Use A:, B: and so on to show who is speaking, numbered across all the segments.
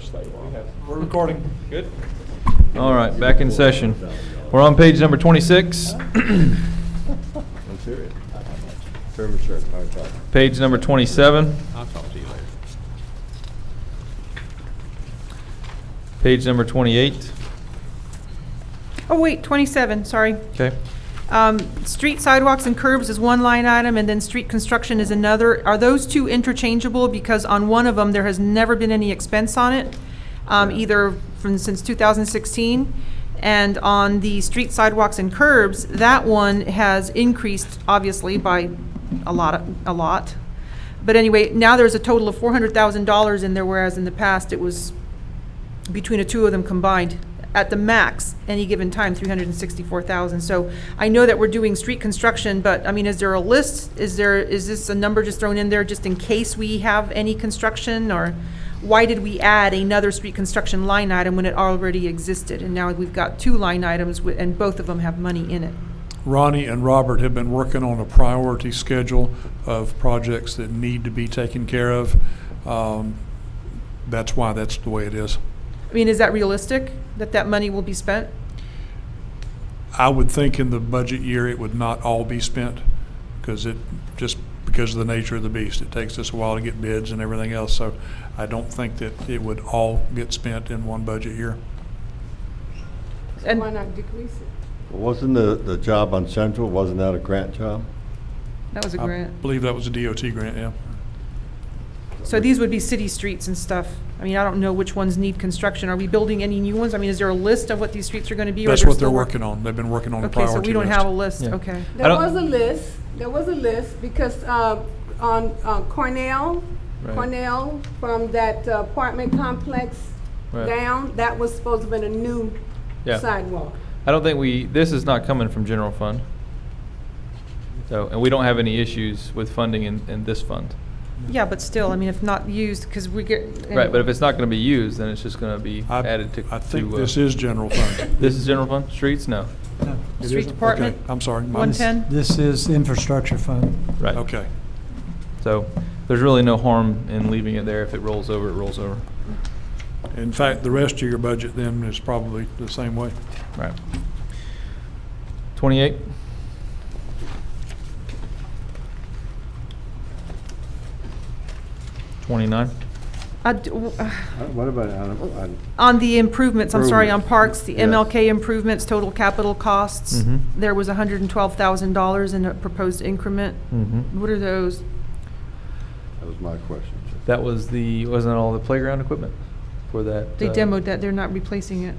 A: slate we have. We're recording. Good?
B: All right, back in session. We're on page number 26,
C: I'm serious. Term insurance, hard talk.
B: page number 27,
A: I'll talk to you later.
B: page number 28.
D: Oh, wait, 27, sorry.
B: Okay,
D: Um, Street sidewalks and curbs is one line item, and then street construction is another. Are those two interchangeable? Because on one of them, there has never been any expense on it, um, either from, since 2016. And on the street sidewalks and curbs, that one has increased, obviously, by a lot, a lot. But anyway, now there's a total of $400,000 in there, whereas in the past, it was between the two of them combined, at the max, any given time, three hundred and sixty-four thousand. So I know that we're doing street construction, but, I mean, is there a list? Is there, is this a number just thrown in there just in case we have any construction? Or why did we add another street construction line item when it already existed? And now we've got two line items, wi- and both of them have money in it.
E: Ronnie and Robert have been working on a priority schedule of projects that need to be taken care of. Um, That's why that's the way it is.
D: I mean, is that realistic, that that money will be spent?
E: I would think in the budget year, it would not all be spent, because it, just because of the nature of the beast. It takes us a while to get bids and everything else, so I don't think that it would all get spent in one budget year.
D: And-
F: Why not decrease it?
C: Wasn't the, the job on Central, wasn't that a grant job?
D: That was a
E: I
D: grant.
E: believe that was a DOT grant, yeah.
D: So these would be city streets and stuff. I mean, I don't know which ones need construction. Are we building any new ones? I mean, is there a list of what these streets are gonna be? or
E: That's what
D: still
E: they're
D: work-
E: working on. They've been working on a
D: Okay,
E: priority
D: so
E: list.
D: we don't have a list,
B: Yeah.
D: okay.
F: There
B: don't-
F: was a list, there was a list, because uh, on uh, Cornell,
B: Right.
F: Cornell, from that uh, apartment complex
B: Right.
F: down, that was supposed to have been a new
B: yeah.
F: sidewalk.
B: I don't think we, this is not coming from general fund. So, and we don't have any issues with funding in, in this fund.
D: Yeah, but still, I mean, if not used, because we get.
B: Right, but if it's not going to be used, then it's just going to be
E: I-
B: added to.
E: I think
B: to, uh,
E: this is general fund.
B: This is general fund? Streets? No.
E: It
D: Street
E: isn't?
D: Department,
E: Okay, I'm sorry. my-
D: 110?
G: This is infrastructure fund.
B: Right.
E: Okay.
B: So there's really no harm in leaving it there. If it rolls over, it rolls over.
E: In fact, the rest of your budget then is probably the same way.
B: Right. Twenty-eight? Twenty-nine?
D: I d- w- uh,
C: What about on, on?
D: On the improvements, I'm sorry, on
C: Improvements,
D: parks, the
C: yes.
D: MLK improvements, total capital costs,
B: Mhm.
E: Mm-hmm.
D: there was $112,000 in a proposed increment.
E: Mm.
B: Mm-hmm.
D: What are those?
C: That was my question.
B: That was the, wasn't all the playground equipment for that?
D: They
B: uh,
D: demoed that, they're not replacing it.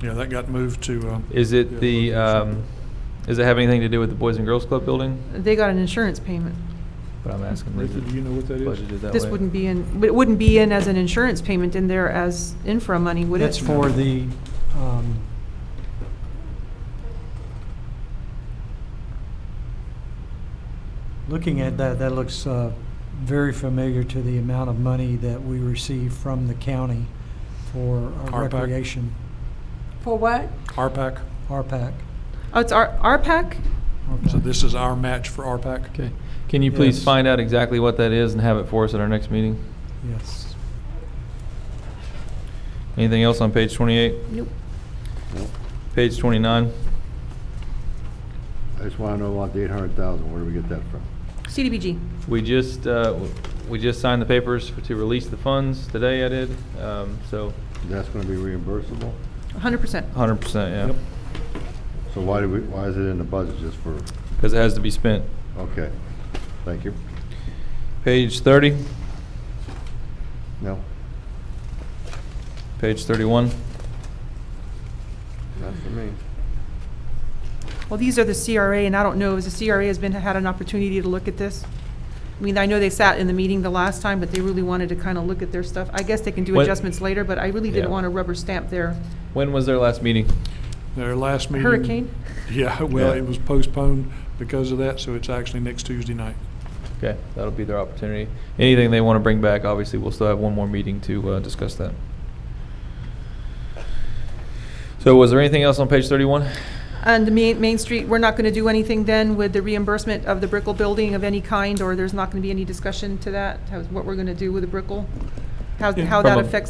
E: Yeah, that got moved to. uh,
B: Is it the,
E: yeah,
B: um, does it have anything to do with the Boys and Girls Club building?
D: They got an insurance payment.
B: But I'm asking. is
E: Rita,
B: it
E: do you know what that is?
B: budgeted that
D: This
B: way?
D: wouldn't be in, but it wouldn't be in as an insurance payment in there as infra money, would it?
G: That's for the, um, looking at that, that looks uh, very familiar to the amount of money that we receive from the county for our
E: RPAC.
G: recreation,
F: For what?
E: RPAC.
G: RPAC.
D: Oh, it's our, our pack?
E: So this is our match for RPAC.
B: Okay. Can you please
G: Yes.
B: find out exactly what that is and have it for us at our next meeting?
G: Yes.
B: Anything else on page twenty-eight?
D: Nope.
B: Page twenty-nine?
C: I just wanna know about the eight hundred thousand, where do we get that from?
D: CDBG.
B: We just, uh, w- we just signed the papers for- to release the funds today, I did, um, so
C: That's gonna be reimbursable?
D: Hundred percent.
B: hundred percent, yeah.
E: Yep.
C: So why do we, why is it in the budget just for,
B: Because it has to be spent.
C: okay, thank you.
B: Page thirty,
C: No,
B: page thirty-one.
C: not for me.
D: Well, these are the CRA, and I don't know, has the CRA has been, had an opportunity to look at this? I mean, I know they sat in the meeting the last time, but they really wanted to kind of look at their stuff. I guess they can do
B: What-
D: adjustments later, but I really
B: Yeah.
D: didn't want to rubber stamp their
B: When was their last meeting?
E: Their last meeting.
D: hurricane.
E: Yeah, well,
B: Yeah.
E: it was postponed because of that, so it's actually next Tuesday night.
B: Okay, that'll be their opportunity. Anything they want to bring back, obviously, we'll still have one more meeting to, uh, discuss that. So was there anything else on page thirty-one?
D: And the Main, Main Street, we're not going to do anything then with the reimbursement of the Brickell building of any kind, or there's not going to be any discussion to that? How's, what we're going to do with the Brickell? How,
E: Yeah.
D: how
B: From
D: that
B: a-
D: affects